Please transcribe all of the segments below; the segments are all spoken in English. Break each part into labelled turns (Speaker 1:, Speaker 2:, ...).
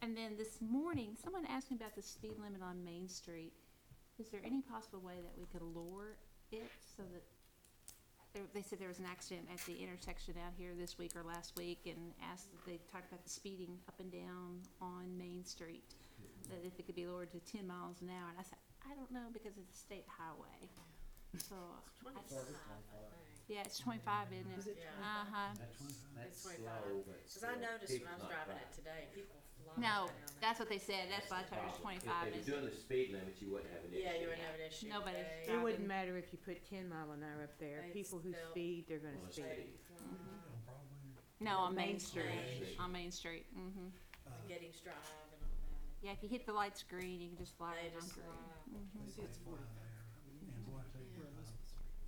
Speaker 1: then this morning, someone asked me about the speed limit on Main Street. Is there any possible way that we could lower it so that, there- they said there was an accident at the intersection out here this week or last week and asked, they talked about the speeding up and down on Main Street, that if it could be lowered to ten miles an hour. And I said, I don't know because it's a state highway. So,
Speaker 2: Twenty-five,
Speaker 1: yeah, it's twenty-five, isn't it?
Speaker 3: Is it
Speaker 2: Yeah.
Speaker 1: Uh-huh.
Speaker 4: That's one,
Speaker 2: That's
Speaker 4: that's slow,
Speaker 2: 25.
Speaker 4: but.
Speaker 2: Cause I
Speaker 4: still,
Speaker 2: noticed when I was
Speaker 4: it's not
Speaker 2: driving
Speaker 4: right.
Speaker 2: it today, people flying
Speaker 1: No,
Speaker 2: down there.
Speaker 1: that's what they said. That's why I
Speaker 4: the
Speaker 1: told her it's
Speaker 4: problem. If
Speaker 1: twenty-five.
Speaker 4: they
Speaker 1: is-
Speaker 4: were doing the speed limit, you wouldn't have an issue.
Speaker 2: Yeah, you would have an issue.
Speaker 1: Nobody's
Speaker 2: today.
Speaker 1: driving.
Speaker 3: It wouldn't matter if you put ten mile an hour up there,
Speaker 2: They'd
Speaker 3: people who
Speaker 2: still-
Speaker 3: speed, they're gonna
Speaker 4: Well, it's
Speaker 3: speed.
Speaker 4: speed.
Speaker 1: Mm-hmm. No, on Main
Speaker 3: Main
Speaker 1: Street,
Speaker 2: Street.
Speaker 1: on Main Street, hmm
Speaker 2: The Gettys Drive and all that.
Speaker 1: Yeah, if you hit the light's green, you can just fly
Speaker 2: They
Speaker 1: right on
Speaker 2: just
Speaker 1: through.
Speaker 2: fly.
Speaker 1: Mhm.
Speaker 5: See, it's forty. And boy, I tell you, uh,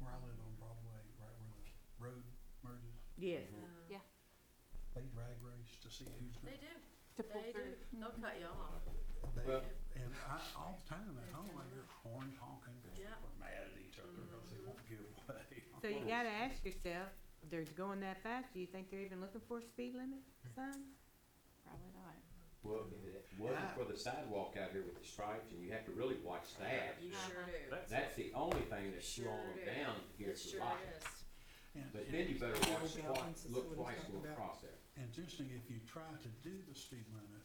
Speaker 5: where I live on Broadway, right where the road merges,
Speaker 3: Yes,
Speaker 2: Uh,
Speaker 1: Yeah.
Speaker 5: they drag race to see who's
Speaker 2: They
Speaker 5: gonna.
Speaker 2: do,
Speaker 1: To pull
Speaker 2: they do.
Speaker 1: through. Mm-hmm.
Speaker 2: They'll cut you off.
Speaker 5: They,
Speaker 4: Well-
Speaker 5: and I, all the time at home, I hear horns honking,
Speaker 2: Yeah.
Speaker 5: we're mad at each
Speaker 4: Mm-hmm.
Speaker 5: other because they won't give way.
Speaker 3: so you gotta ask yourself, they're going that fast, do you think they're even looking for a speed limit sign?
Speaker 1: Probably not.
Speaker 4: Well, if it wasn't
Speaker 2: Ah.
Speaker 4: for the sidewalk out here with the stripes, and you have to really watch that.
Speaker 2: You
Speaker 1: Uh-huh.
Speaker 2: sure do.
Speaker 4: That's the only thing that's
Speaker 2: Sure
Speaker 4: slowing them
Speaker 2: is.
Speaker 4: down
Speaker 2: It
Speaker 4: here to
Speaker 2: sure
Speaker 4: life.
Speaker 2: is.
Speaker 5: And-
Speaker 4: But
Speaker 5: and
Speaker 4: then you better watch
Speaker 5: Yeah.
Speaker 4: twice, look twice going across there.
Speaker 5: And it's interesting, if you try to do the speed limit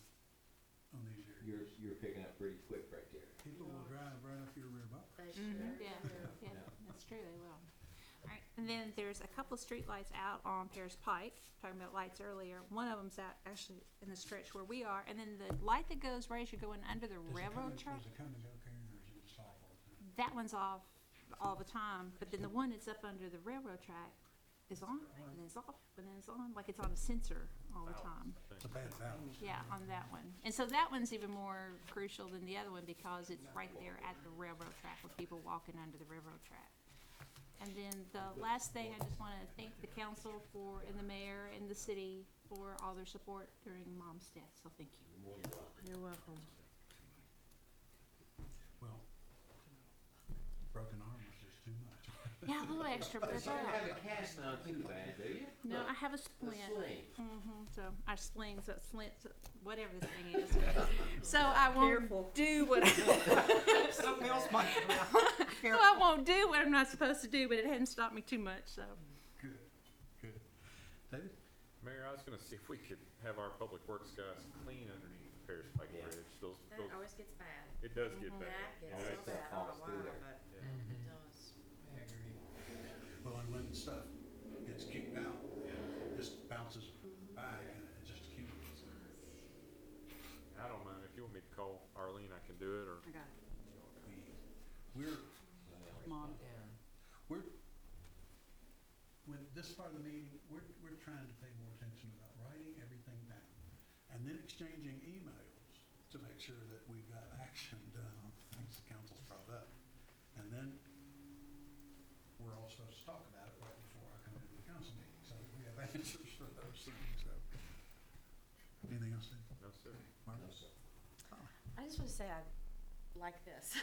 Speaker 5: on these areas,
Speaker 4: You're, you're picking up pretty quick right there.
Speaker 5: people will drive right up your rear bumper.
Speaker 2: They sure
Speaker 3: Mhm.
Speaker 2: do.
Speaker 1: Mm-hmm. Yeah, yeah, that's true, they will. Alright, and then there's a couple of streetlights out on Paris Pike, talking about lights earlier. One of them's out actually in the stretch where we are, and then the light that goes right as you're going under the
Speaker 5: Does it come
Speaker 1: railroad
Speaker 5: and-
Speaker 1: track,
Speaker 5: Does it come and go Karen, or is it just off all the time?
Speaker 1: that one's off all the time, but then the one that's up under the railroad track is on, and then it's off, and then it's on, like it's on a sensor all the time.
Speaker 5: It's a bad balance.
Speaker 1: Yeah, on that one. And so that one's even more crucial than the other one because it's right there at the railroad track with people walking under the railroad track. And then the last thing, I just wanna thank the council for, and the mayor and the city for all their support during mom's death, so thank you.
Speaker 3: You're welcome.
Speaker 5: Well, broken arm was just too much.
Speaker 1: Yeah, a little extra, but
Speaker 4: But
Speaker 1: that's
Speaker 4: you
Speaker 1: all
Speaker 4: don't have
Speaker 1: right.
Speaker 4: a cast on too bad, do you?
Speaker 2: Oh,
Speaker 1: No, I
Speaker 4: Look,
Speaker 1: have a
Speaker 4: The
Speaker 1: splint.
Speaker 4: sling.
Speaker 1: Mm-hmm, so I sling, so slint, so whatever this thing is. So I won't do what I
Speaker 5: Something else might come out.
Speaker 1: So I won't do what I'm not supposed to do, but it hadn't stopped me too much, so.
Speaker 5: Good, good. David?
Speaker 6: Mayor, I was gonna see if we could have our public works guys clean underneath the Paris Pike
Speaker 4: Yeah.
Speaker 6: Bridge. Those,
Speaker 2: That
Speaker 6: those,
Speaker 2: always gets bad.
Speaker 6: it does get bad.
Speaker 2: That
Speaker 6: You
Speaker 2: gets
Speaker 6: know,
Speaker 2: so
Speaker 6: it's-
Speaker 2: bad. I don't know
Speaker 4: Falls through
Speaker 2: why,
Speaker 4: there.
Speaker 2: but
Speaker 6: yeah.
Speaker 2: it does.
Speaker 5: Well, and when stuff gets kicked out, it just bounces by and it just accumulates.
Speaker 6: I don't mind. If you want me to call Arlene, I can do it, or
Speaker 3: I got
Speaker 5: We- We're,
Speaker 3: Mom.
Speaker 5: we're, with this part of the meeting, we're, we're trying to pay more attention about writing everything down and then exchanging emails to make sure that we've got action done on things the council's brought up. And then we're all supposed to talk about it right before I come into the council meeting, so we have answers for those things, so. Anything else, Dave?
Speaker 6: no, sir.
Speaker 5: Mark?
Speaker 4: No, sir.
Speaker 2: I just want to say I like this.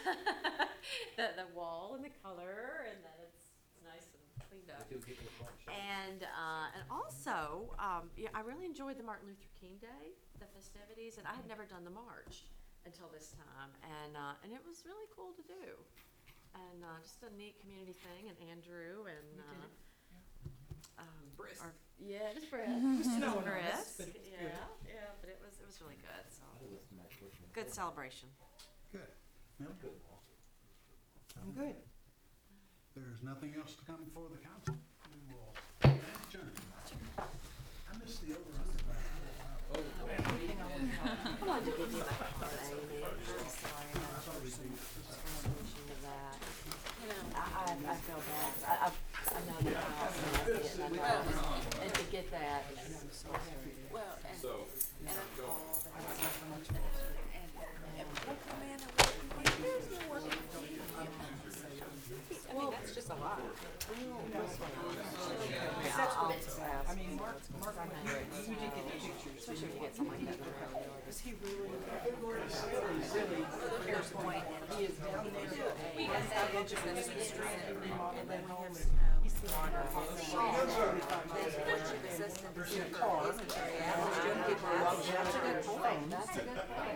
Speaker 2: the the wall and the color and that it's nice and cleaned up.
Speaker 4: But you'll get the front shot.
Speaker 2: And uh, and also, um, yeah, I really enjoyed the Martin Luther King Day, the festivities, and I had never done the march until this time, and uh, and it was really cool to do, and uh, just a neat community thing. And Andrew and
Speaker 3: did it.
Speaker 2: uh, um, our- yeah, just Brisk, just Brisk, yeah, yeah, but it was it was really good. So
Speaker 4: I'd listen to my question.
Speaker 2: good celebration.
Speaker 5: Good. Mel?
Speaker 4: Good walk.
Speaker 5: I'm good. There's nothing else to come before the council. We will adjourn. I missed the over under by a little while.
Speaker 2: Well, I didn't expect that, Amy. I'm sorry.
Speaker 5: I thought we'd do this.
Speaker 2: attention to that. I, I, I feel bad. I, I, I know the house and I get it, and I know- and to get that. Well, and,
Speaker 6: So,
Speaker 2: and I called and I and, and people come in and there's no one. I mean, that's just a lot. I mean, Mark, Mark, I'm great. You did get the pictures. Especially if you get something like that. Is he really? Here's the point. He is down there. We have that interest in the street and then and then we have snow. He's the water. That's a good point. That's a good point.